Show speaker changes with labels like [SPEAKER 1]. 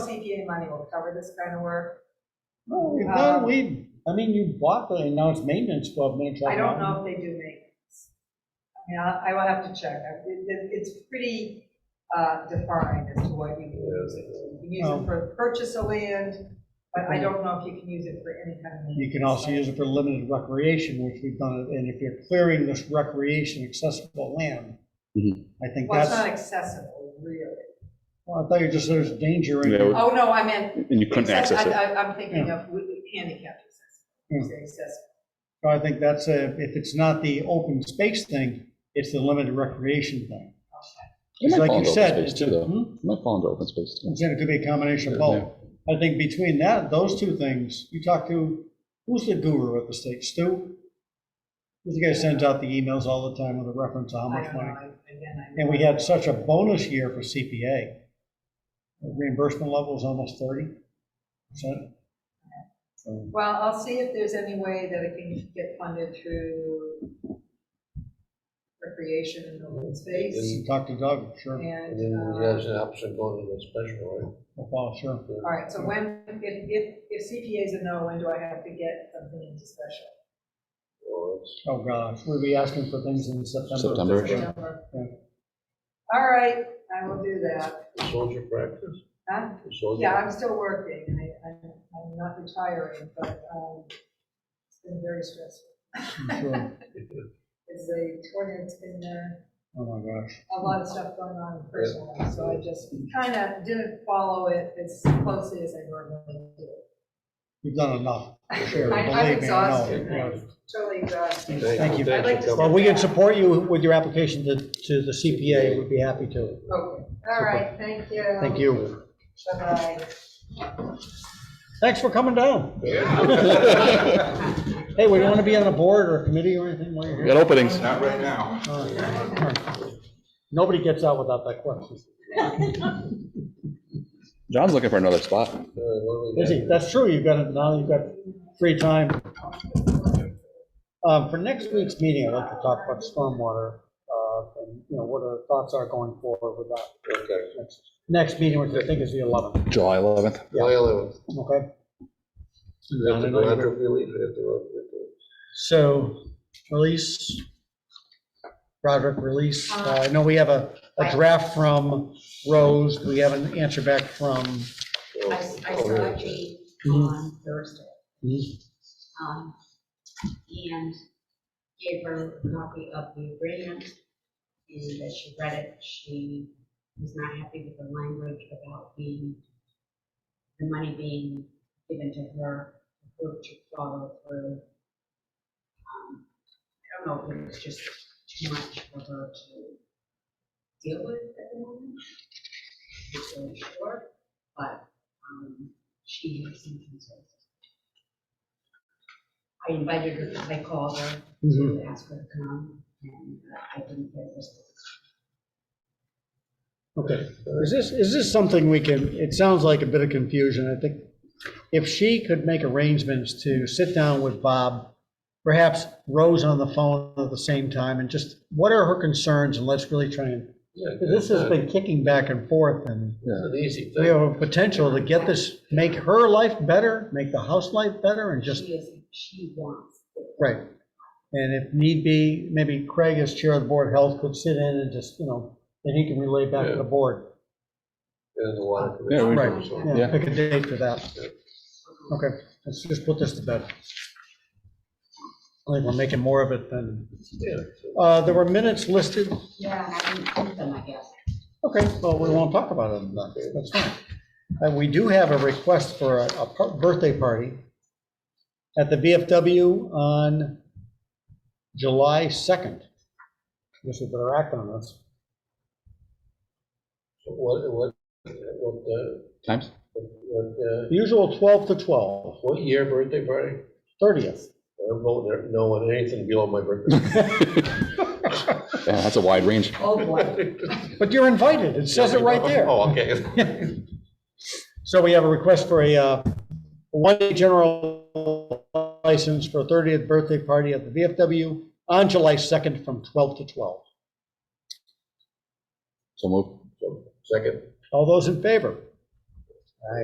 [SPEAKER 1] CPA money will cover this kind of work.
[SPEAKER 2] No,
[SPEAKER 1] Um,
[SPEAKER 2] we- no, we, I mean, you bought the, and now it's maintenance club, man.
[SPEAKER 1] I don't know if they do maintenance. I mean, I I will have to check. I- it- it- It's pretty uh, defined as to what you can use it. to. You can use
[SPEAKER 2] Oh.
[SPEAKER 1] it for purchase of land, but I don't know if you can use it for any kind of maintenance.
[SPEAKER 2] You can also use it for limited recreation, which we've done, it. and if you're clearing this recreation accessible land,
[SPEAKER 3] Mhm.
[SPEAKER 2] I think
[SPEAKER 1] Well, it's
[SPEAKER 2] that's,
[SPEAKER 1] not accessible, really.
[SPEAKER 2] well, I thought you just said there's danger in
[SPEAKER 3] Yeah, we-
[SPEAKER 2] it.
[SPEAKER 1] Oh, no, I meant,
[SPEAKER 3] And you couldn't access
[SPEAKER 1] I-
[SPEAKER 3] it.
[SPEAKER 1] I- I'm thinking of handicapped accessible,
[SPEAKER 2] Hmm.
[SPEAKER 1] You say accessible.
[SPEAKER 2] So I think that's a, if it's not the open space thing, it's the limited recreation thing.
[SPEAKER 3] It
[SPEAKER 2] It's
[SPEAKER 3] might
[SPEAKER 2] like
[SPEAKER 3] fall
[SPEAKER 2] you
[SPEAKER 3] into open
[SPEAKER 2] said,
[SPEAKER 3] space
[SPEAKER 2] it's
[SPEAKER 3] too,
[SPEAKER 2] a-
[SPEAKER 3] though.
[SPEAKER 2] hmm?
[SPEAKER 3] It might fall into open space too.
[SPEAKER 2] I'm saying it could be a combination of both. I think between that, those two things, you talk to, who's the guru at the state, Stu? This guy sends out the emails all the time with a reference to how
[SPEAKER 1] I
[SPEAKER 2] much
[SPEAKER 1] don't know,
[SPEAKER 2] money.
[SPEAKER 1] I- again, I.
[SPEAKER 2] And we had such a bonus year for CPA. The Reimbursement level is almost thirty percent.
[SPEAKER 1] Well, I'll see if there's any way that it can get funded through recreation and open space,
[SPEAKER 2] Talk to Doug, sure,
[SPEAKER 1] and,
[SPEAKER 4] And then
[SPEAKER 1] uh,
[SPEAKER 4] there's an option going to the special, right?
[SPEAKER 2] I'll follow, sure.
[SPEAKER 1] all right, so when, if, if, if CPA is a no, when do I have to get something into special?
[SPEAKER 4] Or it's-
[SPEAKER 2] Oh, gosh, we'll be asking for things in September.
[SPEAKER 3] September. Sure.
[SPEAKER 1] September?
[SPEAKER 2] Yeah.
[SPEAKER 1] All right, I will do that.
[SPEAKER 4] the Soldier practice?
[SPEAKER 1] Huh?
[SPEAKER 4] The soldier-
[SPEAKER 1] Yeah, I'm still working, I, I'm, I'm not retiring, but, um, it's been very stressful.
[SPEAKER 2] Sure.
[SPEAKER 1] It's a tornado, it's been, uh,
[SPEAKER 2] Oh, my gosh.
[SPEAKER 1] a lot of stuff going on in personal life, so I just kind of didn't follow it as closely as I normally do.
[SPEAKER 2] You've done enough, for sure,
[SPEAKER 1] I- I'm
[SPEAKER 2] believe me, I
[SPEAKER 1] exhausted now.
[SPEAKER 2] know.
[SPEAKER 1] Totally exhausted.
[SPEAKER 2] Thank you.
[SPEAKER 1] I'd like
[SPEAKER 4] Thanks
[SPEAKER 1] to
[SPEAKER 4] for
[SPEAKER 2] Well,
[SPEAKER 4] coming.
[SPEAKER 2] we can support you with your application to, to the CPA, we'd be happy to.
[SPEAKER 1] Okay, all right, thank you.
[SPEAKER 2] Thank you.
[SPEAKER 1] Bye-bye.
[SPEAKER 2] Thanks for coming down.
[SPEAKER 3] Got
[SPEAKER 2] Hey, we don't want to be on a board or a committee or anything while you're here.
[SPEAKER 3] openings.
[SPEAKER 5] Not right now.
[SPEAKER 2] All right. Nobody gets out without that question.
[SPEAKER 3] John's looking for another spot.
[SPEAKER 4] Uh, what do we
[SPEAKER 2] Is
[SPEAKER 4] got?
[SPEAKER 2] he? That's true, you've got, it now you've got free time. Um, For next week's meeting, I'd like to talk about stormwater, uh, and, you know, what our thoughts are going forward with that.
[SPEAKER 4] Okay.
[SPEAKER 2] Next- Next meeting, which I think is the 11th,
[SPEAKER 3] July 11th.
[SPEAKER 4] July 11th.
[SPEAKER 2] okay?
[SPEAKER 4] We have to go under relief, we have to go under relief.
[SPEAKER 2] So, release, Roderick, release, Uh, I know we have a, a draft from Rose, we have an answer back from,
[SPEAKER 4] Or-
[SPEAKER 6] I, I
[SPEAKER 4] or-
[SPEAKER 6] saw Kate on Thursday. um, And gave her a copy of the agreement, and as she read it, she was not happy with the language about the, the money being given to her, for her to follow through. Um, I don't know, if it was just too much for her to deal with at the moment. It's really short, but, um, she had some concerns. I invited her, I called her, to ask her to come, and uh, I didn't get a response.
[SPEAKER 2] okay. Is this, is this something we can, it sounds like a bit of confusion, I think. If she could make arrangements to sit down with Bob, perhaps Rose on the phone at the same time, and just, what are her concerns, and let's really try and,
[SPEAKER 4] Yeah,
[SPEAKER 2] this has
[SPEAKER 4] it's
[SPEAKER 2] been kicking back and forth, and
[SPEAKER 4] an easy
[SPEAKER 2] we
[SPEAKER 4] thing.
[SPEAKER 2] have a potential to get this, make her life better, make the house life better, and just,
[SPEAKER 6] She is, she wants it.
[SPEAKER 2] right. And if need be, maybe Craig as chair of the board of health could sit in and just, you know, then he can relay back to the board.
[SPEAKER 4] There's a lot of.
[SPEAKER 3] Yeah, we-
[SPEAKER 2] Right, yeah,
[SPEAKER 3] Yeah.
[SPEAKER 2] pick a date for that. Okay, let's just put this to bed. I think we're making more of it than,
[SPEAKER 4] Yeah.
[SPEAKER 2] uh, there were minutes listed.
[SPEAKER 6] Yeah, and I didn't print them, I guess.
[SPEAKER 2] Okay, well, we won't talk about it, then. that's fine. And we do have a request for a, a par- birthday party at the VFW on July 2nd. Guess we better act on this.
[SPEAKER 4] What, what, what, uh,
[SPEAKER 3] Times?
[SPEAKER 4] what, uh,
[SPEAKER 2] Usual 12 to 12,
[SPEAKER 4] what year birthday party?
[SPEAKER 2] 30th.
[SPEAKER 4] I'm voting no on anything below my birthday.
[SPEAKER 3] Yeah, that's a wide range.
[SPEAKER 6] Oh, boy.
[SPEAKER 2] But you're invited, it says it right there.
[SPEAKER 4] Oh, okay.
[SPEAKER 2] So we have a request for a uh, one-day general license for a 30th birthday party at the VFW on July 2nd from 12 to 12.
[SPEAKER 3] So move.
[SPEAKER 4] So, Second.
[SPEAKER 2] All those in favor?